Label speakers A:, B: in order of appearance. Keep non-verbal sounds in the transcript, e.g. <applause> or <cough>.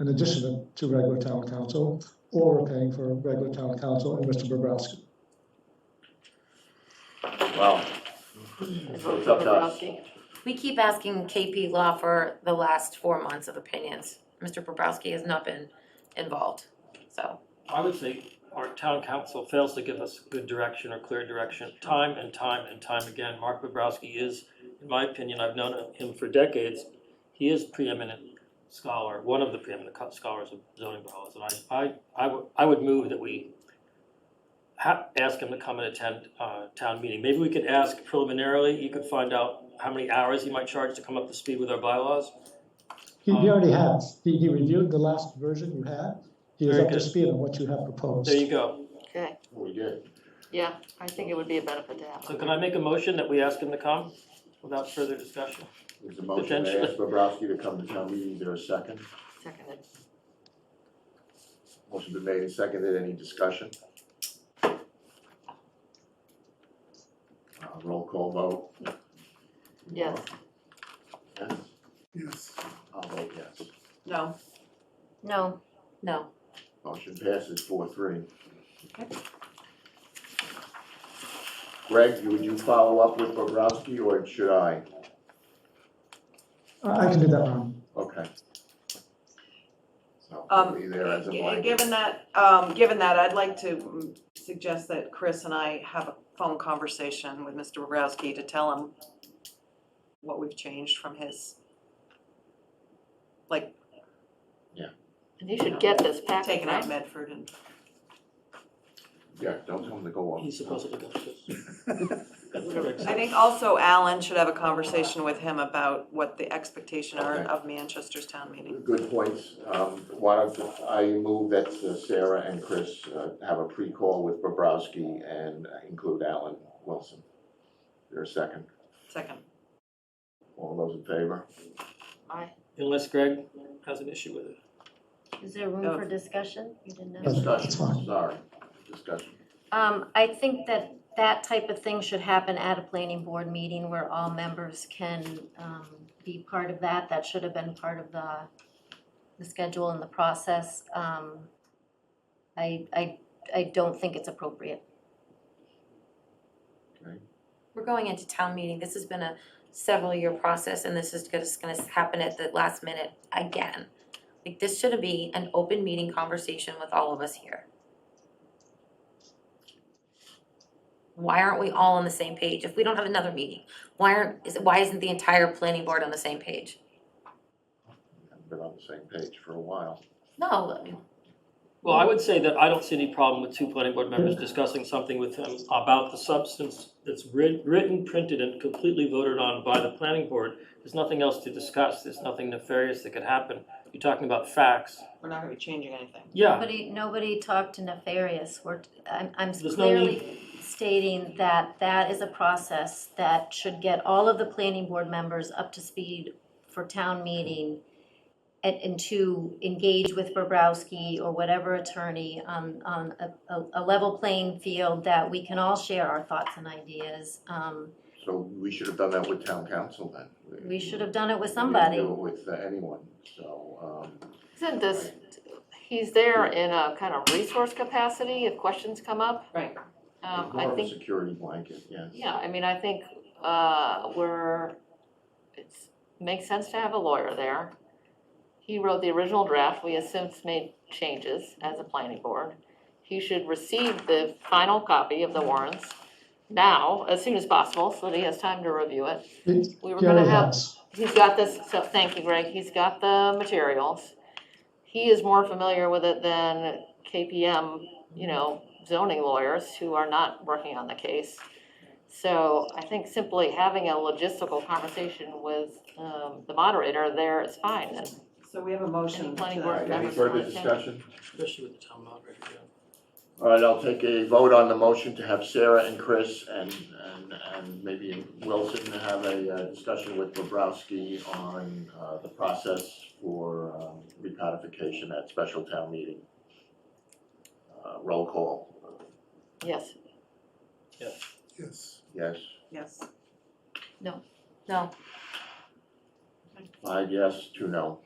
A: in addition to regular town council, or we're paying for regular town council and Mr. Bobrowski.
B: Well,
C: vote
B: It's up to us.
C: Bobrowski.
D: We keep asking KP Law for the last four months of opinions. Mr. Bobrowski has not been involved, so.
E: I would say our town council fails to give us good direction or clear direction, time and time and time again. Mark Bobrowski is, in my opinion, I've known him for decades, he is preeminent scholar, one of the preeminent co- scholars of zoning bylaws. And I, I, I would, I would move that we ha- ask him to come and attend, uh, town meeting. Maybe we could ask preliminarily, you could find out how many hours he might charge to come up to speed with our bylaws.
A: He, he already has, he, he reviewed the last version you had, he is
E: Very
A: up to
E: good.
A: speed on what you have proposed.
E: There you go.
C: Okay,
B: we did.
C: yeah, I think it would be a benefit to have.
E: So can I make a motion that we ask him to come without further discussion?
B: There's a motion to ask Bobrowski to come to town meeting. Is there a second?
C: Seconded.
B: Motion been made and seconded. Any discussion? Uh, roll call vote.
C: Yes.
B: Yes?
F: Yes.
B: I'll vote yes.
G: No.
D: No. No.
B: Motion passes four three. Greg, you- would you follow up with Bobrowski or should I?
A: I I can do that, Ron.
B: Okay. So,
G: Um,
B: be there as a
G: Gi-
B: blanket.
G: Given that, um, given that, I'd like to mm, suggest that Chris and I have a phone conversation with Mr. Bobrowski to tell him what we've changed from his, like,
C: And you should get this packet,
G: taking out
C: right?
G: Medford and
B: Yeah, don't tell him to go on.
E: He's supposed to look at this. Whatever it
G: I
E: says.
G: think also Alan should have a conversation with him about what the expectation are
B: Okay.
G: of Manchester's town meeting.
B: Good points. Um, why don't I move that uh, Sarah and Chris uh, have a pre-call with Bobrowski and uh, include Alan Wilson. Is There a second?
G: Second.
B: All those in favor?
E: <laughs> Unless Greg has an issue with it.
H: Is there room
G: Oh.
H: for discussion? You didn't have.
A: Yes. That's
B: Discussion,
A: fine.
B: sorry, discussion.
H: Um, I think that that type of thing should happen at a planning board meeting where all members can, um, be part of that. That should have been part of the, the schedule and the process. Um, I, I, I don't think it's appropriate.
D: We're going into town meeting. This has been a several year process and this is just gonna happen at the last minute again. Like, this should be an open meeting conversation with all of us here. Why aren't we all on the same page? If we don't have another meeting, why aren't, is, why isn't the entire planning board on the same page?
B: Haven't Been on the same page for a while.
D: No, I mean,
E: Well, I would say that I don't see any problem with two planning board members discussing something with him about the substance that's writ- written, printed, and completely voted on by the planning board. There's nothing else to discuss, there's nothing nefarious that could happen. You're talking about facts.
G: We're not gonna be changing anything.
E: Yeah,
H: Nobody, nobody talked to nefarious. We're, I'm, I'm
E: There's no need.
H: clearly stating that that is a process that should get all of the planning board members up to speed for town meeting and, and to engage with Bobrowski or whatever attorney on, on a, a, a level playing field that we can all share our thoughts and ideas. Um,
B: So we should have done that with town council then.
H: we should have done it with
B: We
H: somebody.
B: didn't do it with uh, anyone, so, um,
C: Isn't this, he's there in a kind of resource capacity if questions come up.
G: Right.
C: Um,
B: more
C: I
B: of a
C: think
B: security blanket, yes.
C: Yeah, I mean, I think uh, we're, it's, makes sense to have a lawyer there. He wrote the original draft, we have since made changes as a planning board. He should receive the final copy of the warrants now, as soon as possible, so that he has time to review it.
A: It-
C: We were
A: he
C: gonna
A: already
C: have
A: has.
C: He's got this, so, thank you, Greg, he's got the materials. He is more familiar with it than KPM, you know, zoning lawyers who are not working on the case. So I think simply having a logistical conversation with, um, the moderator there is fine, and
G: So we have a
C: And
G: motion
C: the planning
B: All
C: board
B: right,
G: to,
B: any
C: members
B: further
C: wanna change.
B: discussion?
E: especially with the town moderator. yeah.
B: All right, I'll take a vote on the motion to have Sarah and Chris and, and, and maybe Wilson have a uh, discussion with Bobrowski on, uh, the process for, um, recodification at special town meeting. Uh, roll call,
C: yes,
F: Yes.
B: yes,
G: yes.
D: no.
B: five yes, two no.